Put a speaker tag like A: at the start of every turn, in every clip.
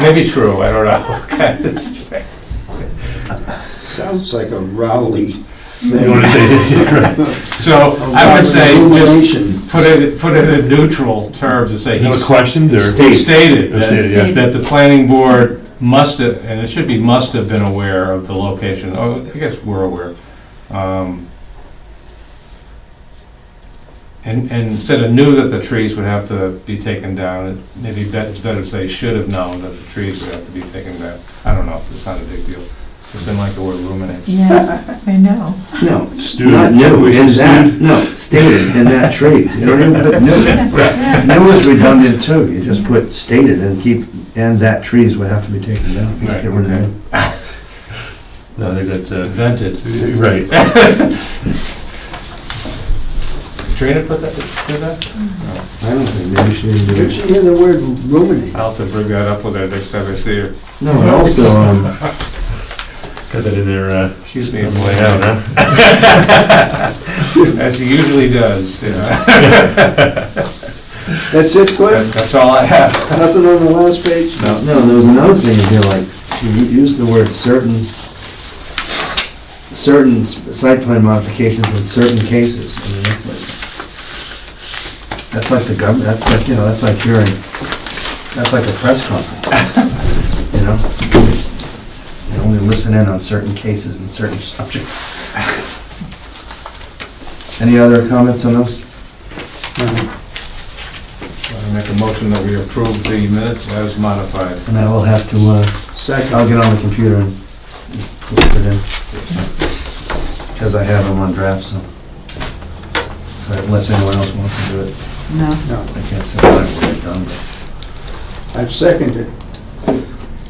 A: Maybe true, I don't know. Okay, it's-
B: Sounds like a Rowley thing.
C: You want to say, yeah, right.
A: So I would say, just
B: Illumination.
A: put it, put it in neutral terms and say
C: No
A: he's
C: questions or?
A: he stated
C: Or stated,
A: that,
C: yeah.
A: that the planning board must have, and it should be must have been aware of the location. Oh, I guess we're aware. Um, And, and instead of knew that the trees would have to be taken down, it maybe bet- it's better to say should have known that the trees would have to be taken down. I don't know, it's not a big deal. It's been like the word ruminate.
D: Yeah, I know.
E: No,
C: Student.
E: not new,
C: We
E: in
C: said
E: that,
C: student.
E: no, stated in that trees. You don't even put new. New is redundant too. You just put stated and keep, and that trees would have to be taken down. Just
A: Right,
E: get rid of
A: okay.
E: new.
C: No, I think that's, uh,
A: Invented.
C: right.
A: Katrina put that, did that?
E: I don't think, maybe she didn't do
B: Did
E: it.
B: you hear the word ruminate?
A: I'll have to bring that up with her next time I see her.
E: No, and also, um,
C: Got that in there, uh,
A: Excuse me,
C: yeah,
A: I'm late.
C: huh?
A: As he usually does, you know.
B: That's it, Cliff?
A: That's all I have.
B: Nothing on the last page?
E: no, there was another thing in here, like, you u- used the word certain, certain s- site plan modifications in certain cases. I mean, that's like, that's like the government, that's like, you know, that's like hearing, that's like a press conference, you know? You only listen in on certain cases and certain subjects. Any other comments on those?
A: I Make a motion that we approve the minutes as modified.
E: And I will have to, uh, I'll
B: Second.
E: get on the computer and put it in. Because I have them on draft, so. So unless anyone else wants to do it,
D: No.
B: No,
E: I can't say that I've already done, but.
B: I've seconded.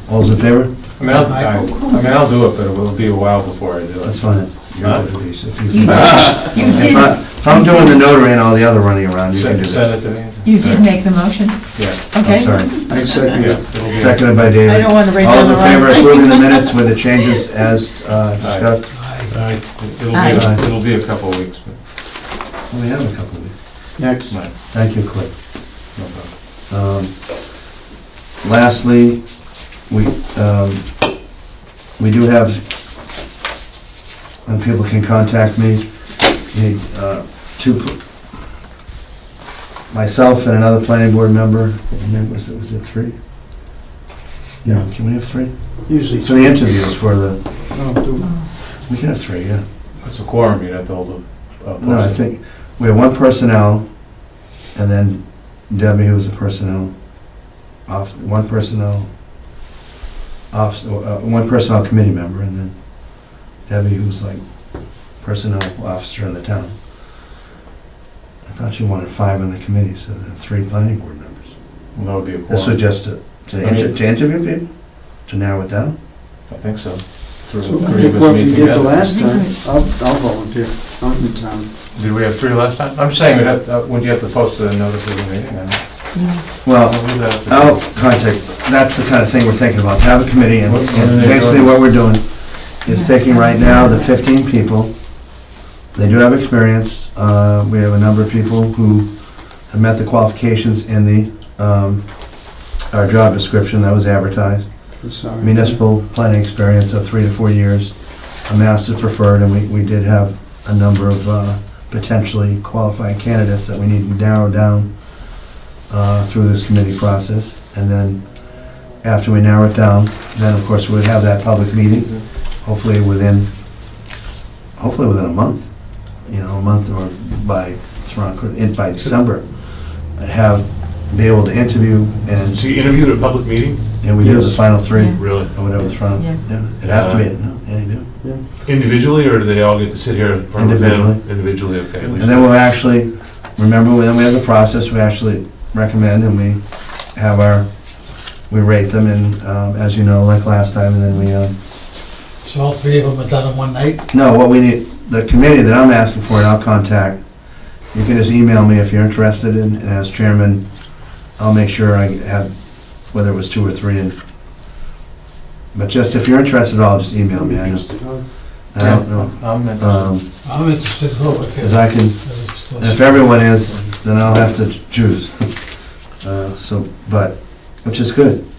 E: All's in favor?
A: I mean, I'll, I I mean, I'll do it, but it will be a while before I do
E: That's
A: it.
E: fine. You're
A: Huh?
E: up at least, if
D: You
E: you-
D: did, you
E: If I-
D: did,
E: if I'm doing the notary and all the other running around, you can do
A: Send send
E: this.
A: it to me?
D: you did make the motion,
A: Yeah,
E: I'm
D: okay?
E: sorry.
B: I seconded.
A: yeah. it'll be-
E: Seconded by David.
D: I don't want to write down
E: All's
D: the
E: in
D: wrong.
E: favor of approving the minutes with the changes as uh, discussed?
A: Aye. It'll
D: Aye.
A: be, it'll be a couple of weeks, but
E: Well, We have a couple of these.
B: Next.
A: no, no
E: Thank you, Cliff.
A: problem.
E: Um, Lastly, we, um, we do have, and people can contact me, the, uh, two, pl- myself and another planning board member, and then was it, was it three? No, can we have three?
B: Usually.
E: For the interviews, for the,
B: No, do-
E: we can have three, yeah.
A: It's a quorum, you'd have to hold a- a.
E: No, I
A: posting.
E: think, we have one personnel, and then Debbie, who's the personnel, off, one personnel, off, uh, one personnel committee member, and then Debbie, who's like personnel officer in the town. I thought you wanted five on the committee, so then three planning board members.
A: Well, That would be a
E: This was
A: quorum.
E: just to, to
A: I mean-
E: inter- to interview people, to narrow it down?
A: I think so. Three
B: So
A: three of
B: What
A: us
B: we
A: meet
B: did the
A: together.
B: last time, I'll I'll volunteer. I'm in town.
A: Did we have three last time? I'm saying, we'd have to- uh, would you have to post the notice of the meeting? I don't-
D: Oh,
E: Well,
A: I'll do that after-
E: I'll Oh, contact, that's the kind of thing we're thinking about, to have a committee, and
A: What- what are they
E: basically
A: doing?
E: what we're doing is taking right now the 15 people, they do have experience, uh, we have a number of people who have met the qualifications in the, um, our job description that was advertised,
B: I'm sorry.
E: municipal planning experience of three to four years, a master's preferred, and we, we did have a number of uh, potentially qualified candidates that we need to narrow down uh, through this committee process. And then, after we narrow it down, then of course we would have that public meeting, hopefully within, hopefully within a month, you know, a month or by, it's around, in- by December, have, be able to interview and,
C: So you interviewed at a public meeting?
E: and we do the
B: Yes.
E: final three.
D: Yeah.
C: Really?
E: Or whatever's front,
D: Yeah.
E: yeah, it has to be, no, yeah, you do.
C: Individually, or do they all get to sit here in front of
E: Individually.
C: them? Individually, okay. at
E: And
C: least-
E: then we'll actually, remember, then we have the process, we actually recommend and we have our, we rate them and, um, as you know, like last time, and then we, um,
F: So all three of them are done in one night?
E: no, what we need, the committee that I'm asking for, and I'll contact, you can just email me if you're interested in, and as chairman, I'll make sure I have, whether it was two or three, and, but just if you're interested at all, just email me, I just, I don't know.
A: I'm in.
E: Um,
F: I'm interested in who, if
E: cause I can, And If everyone is, then I'll have to choose. Uh, So, but, which is good.